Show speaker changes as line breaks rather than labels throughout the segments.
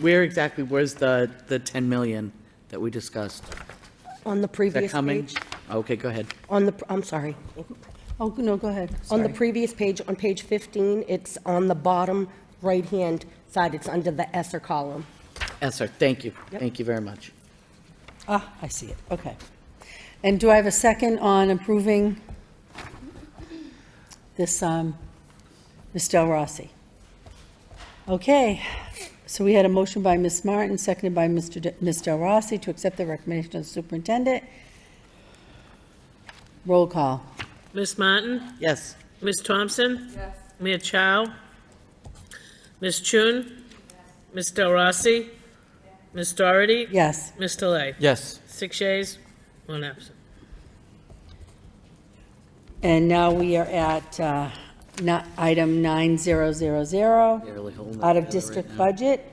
Where exactly was the, the 10 million that we discussed?
On
Is
the
that
previous
coming?
page,
Okay, go ahead.
on the, I'm sorry.
Oh, no, go ahead.
On the
Sorry.
previous page, on page 15, it's on the bottom right-hand side, it's under the Esser column.
Yes, sir, thank you.
Yep.
Thank you very much.
Ah, I see it, okay. And do I have a second on approving this, um, Ms. Del Rossi? Okay, so we had a motion by Ms. Martin, seconded by Mr. De- Ms. Del Rossi to accept the recommendation of the superintendent. Roll call.
Miss Martin?
Yes,
Miss Thompson? Yes. Mia Chow? Miss Chun? Miss Del Rossi? Miss Doherty?
Yes,
Miss Delay?
Yes,
Six yeas, one absent.
and now we are at uh, not- item 9000.
They're really holding it
out
together
of
right
district
now.
budget.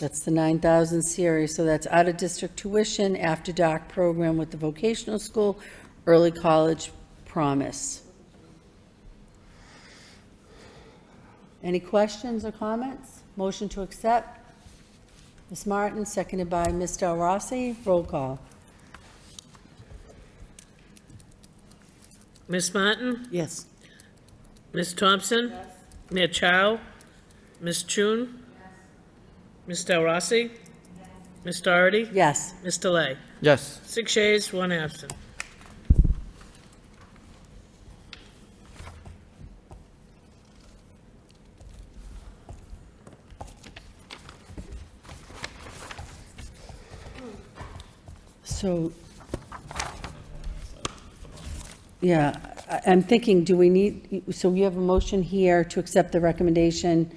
That's the 9,000 series, so that's out of district tuition, after doc program with the vocational school, early college promise. Any questions or comments? Motion to accept? Ms. Martin, seconded by Ms. Del Rossi, roll call.
Miss Martin?
yes.
Miss Thompson? Mia Chow? Miss Chun? Miss Del Rossi? Miss Doherty?
Yes.
Miss Delay?
yes,
Six yeas, one absent.
So, yeah, I- I'm thinking, do we need, so we have a motion here to accept the recommendation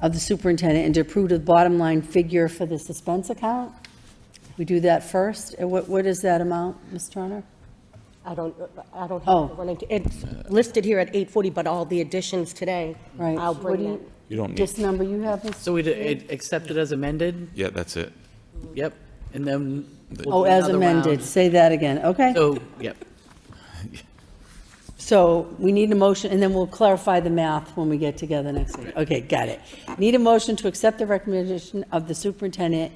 of the superintendent and to approve the bottom line figure for the suspense account? We do that first? And What, what is that amount, Ms. Turner?
I don't, I don't
Oh.
have, the one I- it's listed here at 840, but all the additions today,
Right.
I'll
what do
bring it.
You don't need,
This number you have, Ms.?
So we did- it accepted as amended?
yeah, that's it.
Yep, and then. we'll
Oh,
do
as
another round.
amended, say that again, okay?
So, yep,
So we need a motion, and then we'll clarify the math when we get together next week. Okay, got it. Need a motion to accept the recommendation of the superintendent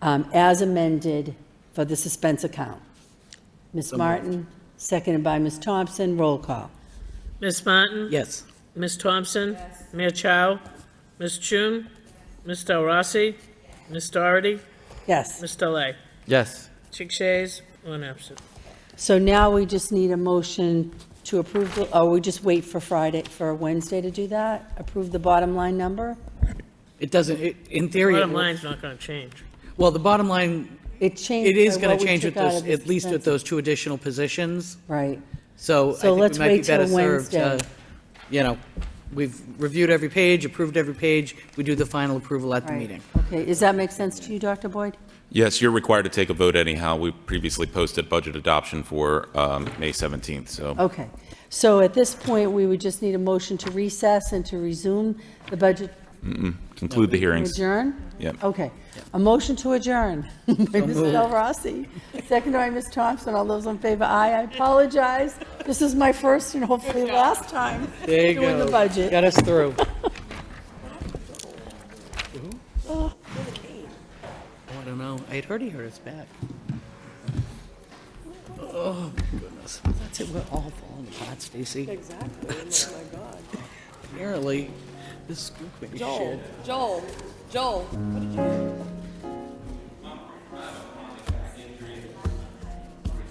um, as amended for the suspense account. Ms. Martin, seconded by Ms. Thompson, roll call.
Miss Martin?
yes.
Ms. Thompson? Mia Chow? Ms. Chun? Ms. Del Rossi? Ms. Doherty?
Yes.
Ms. Delay?
yes.
Six yeas, one absent.
So now we just need a motion to approve, the- or we just wait for Friday, for Wednesday to do that? Approve the bottom line number?
It doesn't, it- in theory, it
Bottom
will-
line's not gonna change.
well, the bottom line,
It changed.
it is
by
going
what
to
we
change
took
with
out
those,
of the
at least with
suspense.
those two additional positions.
Right.
So I
So
think we
let's
might be
wait till
better served
Wednesday.
to, you know, we've reviewed every page, approved every page, we do the final approval at the
Right.
meeting.
Okay, does that make sense to you, Dr. Boyd?
Yes, you're required to take a vote anyhow. We previously posted budget adoption for um, May 17th, so.
Okay, so at this point, we would just need a motion to recess and to resume the budget
Conclude the hearings.
adjourn?
Yep.
Okay, a motion to adjourn by Ms. Del Rossi, seconded by Ms. Thompson, all those in favor, aye, I apologize, this is my first and hopefully last time
There you go.
doing the budget.
Got us through. Oh, I don't know, I had heard he hurt his back. Oh, my goodness, that's it, we're all falling apart, Stacy. Exactly, oh my God. Apparently, this school committee shit.
Joel, Joel, Joel, what did you do?